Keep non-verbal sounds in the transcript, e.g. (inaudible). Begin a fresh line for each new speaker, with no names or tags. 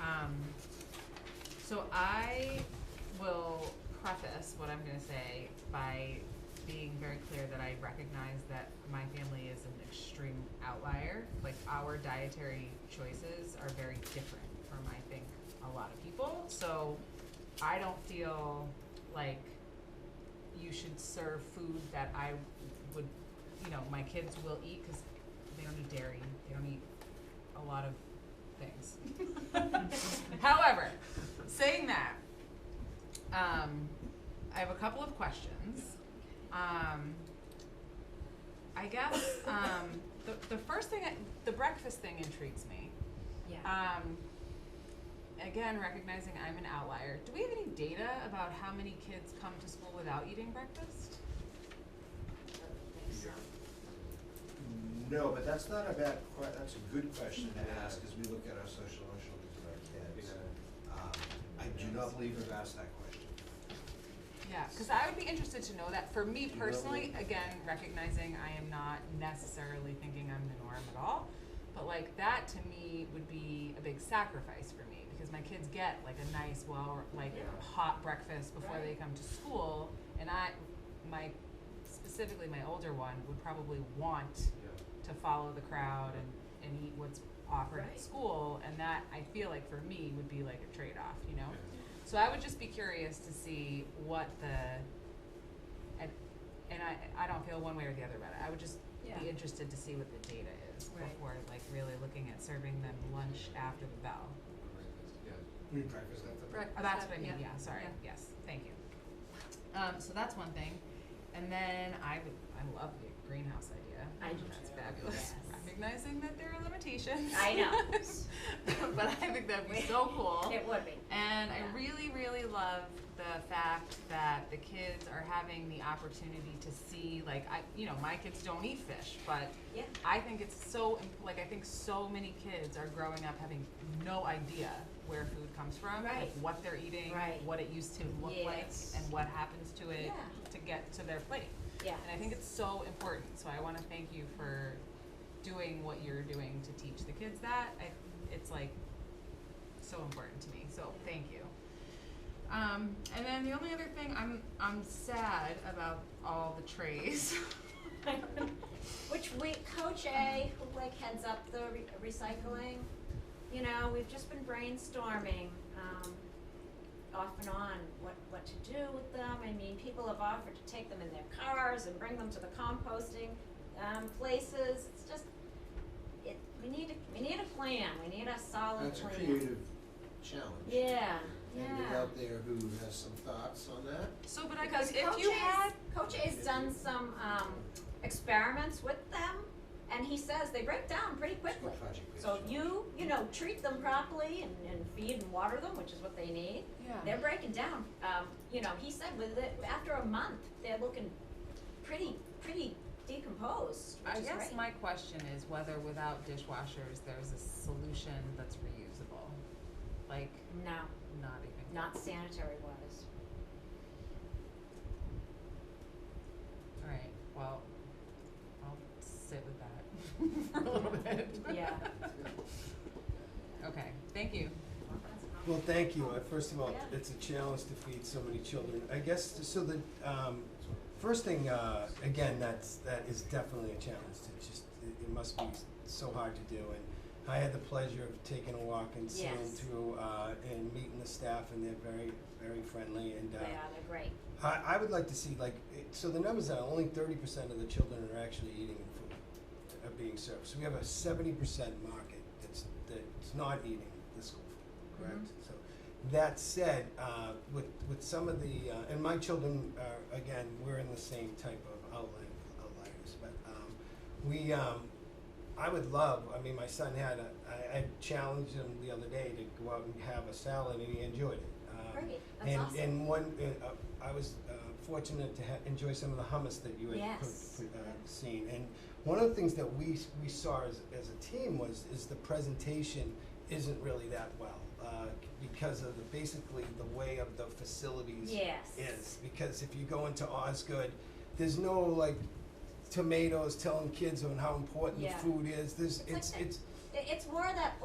Um, So I will preface what I'm gonna say by being very clear that I recognize that my family is an extreme outlier. Like our dietary choices are very different from I think a lot of people. So I don't feel like you should serve food that I would, you know, my kids will eat because they don't eat dairy, they don't eat a lot of things. (laughs) However, saying that, um, I have a couple of questions. Um, I guess um, the, the first thing, I- the breakfast thing intrigues me.
Yeah.
Um, again, recognizing I'm an outlier, do we have any data about how many kids come to school without eating breakfast?
No, but that's not a bad que- that's a good question to ask as we look at our social emotional needs of our kids. Um, I do not believe we've asked that question.
Yeah, because I would be interested to know that. For me
Do you know
personally,
what-
again, recognizing I am not necessarily thinking I'm the norm at all, but like that to me would be a big sacrifice for me because my kids get like a nice, well, like
Yeah.
hot breakfast before they
Right.
come to school, and I, my, specifically my older one would probably want to follow the crowd and, and eat what's offered at
Right.
school, and that I feel like for me would be like a trade off, you know. So I would just be curious to see what the, and, and I, I don't feel one way or the other about it. I would just
Yeah.
be interested to see what the data is
Right.
before like really looking at serving them lunch after the bell.
We breakfast at the.
Breakfast.
Oh, that's what I mean,
Yeah.
yeah, sorry,
Yeah.
yes, thank you. Um, so that's one thing, and then I would, I love the greenhouse idea.
I do
That's
too.
fabulous,
Yes.
recognizing that there are limitations.
I know.
(laughs) But I think that'd be so cool.
(laughs) It would be.
And I
Yeah.
really, really love the fact that the kids are having the opportunity to see, like, I, you know, my kids don't eat fish, but
Yeah.
I think it's so, imp- like, I think so many kids are growing up having no idea where food comes from, like,
Right.
what they're eating,
Right.
what it used to look like,
Yes.
and what happens to it
Yeah.
to get to their plate.
Yeah.
And I think it's so important. So I want to thank you for doing what you're doing to teach the kids that. I, it's like so important to me. So thank you. Um, and then the only other thing I'm I'm sad about all the trays. (laughs)
Which we, Coach A, who like heads up the re- recycling, you know, we've just been brainstorming, um, off and on, what, what to do with them. I mean, people have offered to take them in their cars and bring them to the composting, um, places. It's just, it, we need, a- we need a plan. We need a solid
That's a
plan.
creative challenge.
Yeah,
Anybody
yeah.
out there who has some thoughts on that?
So, but I
Because
if
Coach
you
A's-
had
Coach A's done some um, experiments with them, and he says they break down pretty
School
quickly.
project based
So
challenge.
you, you know, treat them properly and, and feed and water them, which is what they need. They're breaking down. Um, you know, he said with it, after a month, they're looking pretty, pretty decomposed,
I
which is
guess
great.
my question is whether without dishwashers there's a solution that's reusable, like
No,
not even.
not sanitary wise.
All right. Well, I'll sit with that (laughs) for a little bit.
Yeah.
(laughs)
Okay. Thank you.
Well, thank you. Uh, First of all,
Yeah.
it's a challenge to feed so many children. I guess, so the, um, first thing, uh, again, that's, that is definitely a challenge. It just, it, it must be so hard to do. And I had the pleasure of taking a walk and seeing
Yes.
through, uh, and meeting the staff and they're very, very friendly and,
They
uh,
are, they're great.
I, I would like to see like it, so the numbers are only thirty percent of the children are actually eating food, are being served. So we have a seventy percent market that's that's not eating the school food, correct? So that said, uh, with with some of the uh, and my children are again we're in the same type of outline outliers, but um, we um, I would love, I mean, my son had a, I, I challenged him the other day to go out and have a salad and he enjoyed it. Um,
Great. That's
and,
awesome.
And one, uh, uh, I was uh, fortunate to ha- enjoy some of the hummus that you had put-
Yes.
put, uh, seen. And one of the things that we, s- we saw as, as a team was, is the presentation isn't really that well uh, because of the, basically the way of the facilities
Yes.
is because if you go into Osgood, there's no like tomatoes telling kids on how important
Yeah.
food is. There's
It's like
it's
that-
it's
It- It's more that